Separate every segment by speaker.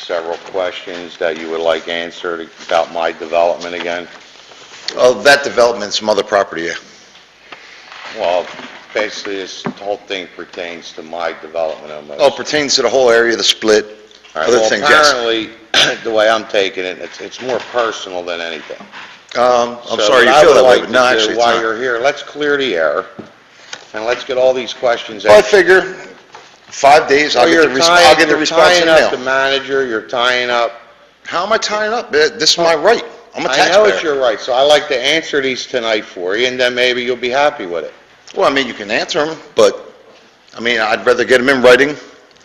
Speaker 1: several questions that you would like answered about my development again.
Speaker 2: Oh, that development, some other property, yeah.
Speaker 1: Well, basically, this whole thing pertains to my development almost.
Speaker 2: Oh, pertains to the whole area, the split,
Speaker 1: All right,
Speaker 2: other
Speaker 1: well,
Speaker 2: things, yes.
Speaker 1: Apparently, the way I'm taking it, it's, it's more personal than anything.
Speaker 2: Um,
Speaker 1: So
Speaker 2: I'm sorry you
Speaker 1: what I
Speaker 2: feel
Speaker 1: would
Speaker 2: that way,
Speaker 1: like
Speaker 2: but
Speaker 1: to
Speaker 2: no,
Speaker 1: do
Speaker 2: actually, it's
Speaker 1: While
Speaker 2: not.
Speaker 1: you're here, let's clear the air, and let's get all these questions
Speaker 2: Well, I
Speaker 1: answered.
Speaker 2: figure, five days, I'll
Speaker 1: So
Speaker 2: get
Speaker 1: you're
Speaker 2: the, resp-
Speaker 1: tying-
Speaker 2: I'll get the response in the
Speaker 1: You're tying up the
Speaker 2: mail.
Speaker 1: manager, you're tying up
Speaker 2: How am I tying up? Eh, This is my right. I'm a
Speaker 1: I know it's
Speaker 2: taxpayer.
Speaker 1: your right, so I like to answer these tonight for you, and then maybe you'll be happy with it.
Speaker 2: Well, I mean, you can answer them, but, I mean, I'd rather get them in writing.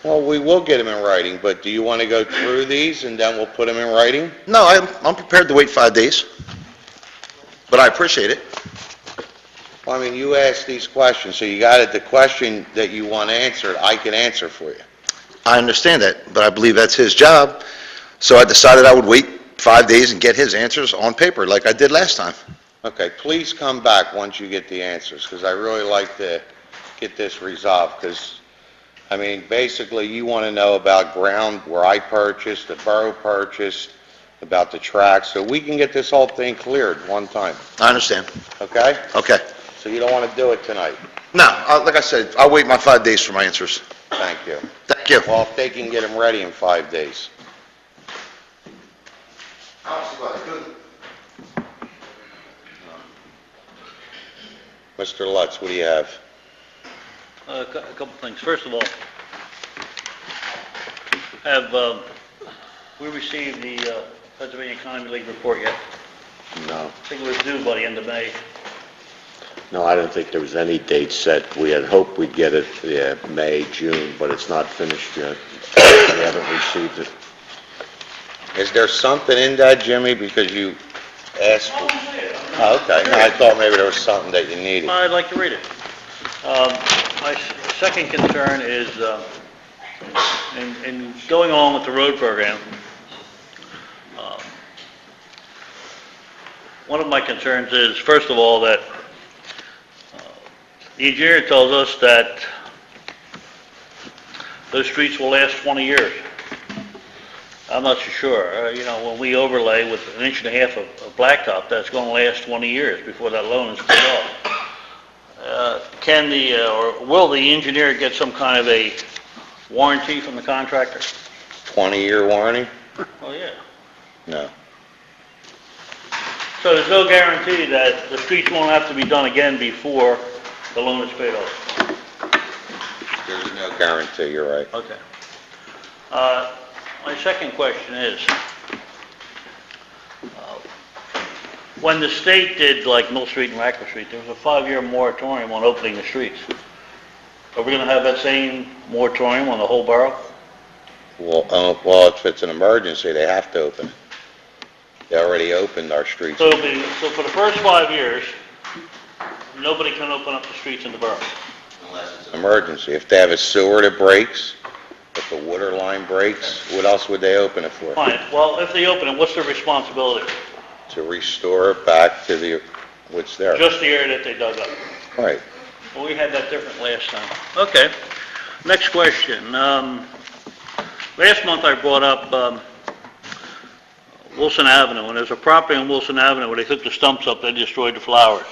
Speaker 1: Well, we will get them in writing, but do you want to go through these, and then we'll put them in writing?
Speaker 2: No, I'm, I'm prepared to wait five days, but I appreciate it.
Speaker 1: Well, I mean, you asked these questions, so you got it, the question that you want answered, I can answer for you.
Speaker 2: I understand that, but I believe that's his job. So I decided I would wait five days and get his answers on paper, like I did last time.
Speaker 1: Okay, please come back once you get the answers, because I really like to get this resolved, because, I mean, basically, you want to know about ground where I purchased, the borough purchased, about the tracks, so we can get this whole thing cleared one time.
Speaker 2: I understand.
Speaker 1: Okay?
Speaker 2: Okay.
Speaker 1: So you don't want to do it tonight.
Speaker 2: No, I- like I said, I'll wait my five days for my answers.
Speaker 1: Thank you.
Speaker 2: Thank you.
Speaker 1: Well, if they can get them ready in five days. Mr. Lutz, what do you have?
Speaker 3: Uh, A cou- a couple things. First of all, have, um, we received the uh, Pennsylvania Economy League report yet?
Speaker 4: No,
Speaker 3: I think it was due by the end of May.
Speaker 4: no, I don't think there was any date set. We had hoped we'd get it, yeah, May, June, but it's not finished yet. We haven't received it.
Speaker 1: Is there something in that, Jimmy, because you asked for...
Speaker 3: I'd
Speaker 1: Oh, Okay, No, I thought maybe there was something that you needed.
Speaker 3: like to read it. Um, My s- second concern is, um, in- in going on with the road program, um, one of my concerns is, first of all, that uh, the engineer tells us that those streets will last 20 years. I'm not so sure. Uh, You know, when we overlay with an inch and a half of of blacktop, that's going to last 20 years before that loan is paid off. Uh, Can the, uh, or will the engineer get some kind of a warranty from the contractor?
Speaker 1: 20-year warranty?
Speaker 3: Oh, yeah.
Speaker 1: No.
Speaker 3: So there's no guarantee that the streets won't have to be done again before the loan is paid off?
Speaker 1: There's no guarantee, you're right.
Speaker 3: Okay. Uh, My second question is, uh, when the state did like Mill Street and Rackle Street, there was a five-year moratorium on opening the streets. Are we going to have that same moratorium on the whole borough?
Speaker 1: Well, uh, well, if it's an emergency, they have to open it. They already opened our streets.
Speaker 3: So it'll be, so for the first five years, nobody can open up the streets in the borough?
Speaker 1: emergency. If they have a sewer that breaks, if the water line breaks, what else would they open it for?
Speaker 3: Fine, well, if they open it, what's their responsibility?
Speaker 1: To restore it back to the, what's there.
Speaker 3: Just the area that they dug up.
Speaker 1: Right.
Speaker 3: Well, we had that different last time. Okay. Next question. Um, Last month I brought up um, Wilson Avenue, and there's a property on Wilson Avenue where they took the stumps up, they destroyed the flowers.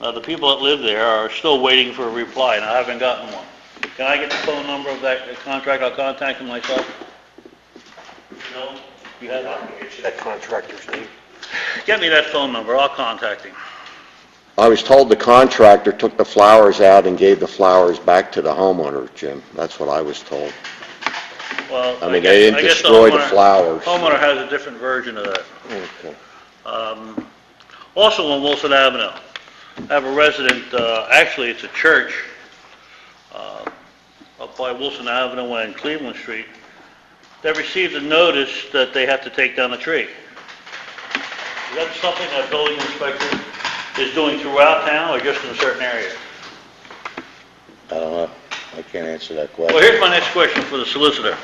Speaker 3: Now, the people that live there are still waiting for a reply, and I haven't gotten one. Can I get the phone number of that contract? I'll contact them myself. No? You have it? That contractor's name. Get me that phone number, I'll contact him.
Speaker 4: I was told the contractor took the flowers out and gave the flowers back to the homeowner, Jim. That's what I was told.
Speaker 3: Well,
Speaker 4: I mean,
Speaker 3: guess-
Speaker 4: they didn't
Speaker 3: I guess
Speaker 4: destroy the
Speaker 3: homeowner-
Speaker 4: flowers.
Speaker 3: Homeowner has a different version of that.
Speaker 4: Okay.
Speaker 3: Um, Also on Wilson Avenue, I have a resident, uh, actually, it's a church, uh, up by Wilson Avenue and Cleveland Street, that received a notice that they have to take down a tree. Is that something that building inspector is doing throughout town or just in certain areas?
Speaker 1: I don't know. I can't answer that
Speaker 3: Well,
Speaker 1: question.
Speaker 3: here's my next question for the solicitor.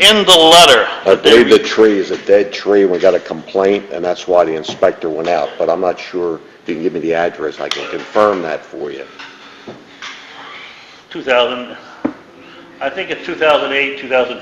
Speaker 3: In the letter...
Speaker 4: I believe the tree is a dead tree. We got a complaint, and that's why the inspector went out, but I'm not sure if you can give me the address. I can confirm that for you.
Speaker 3: 2000, I think in 2008, 2000,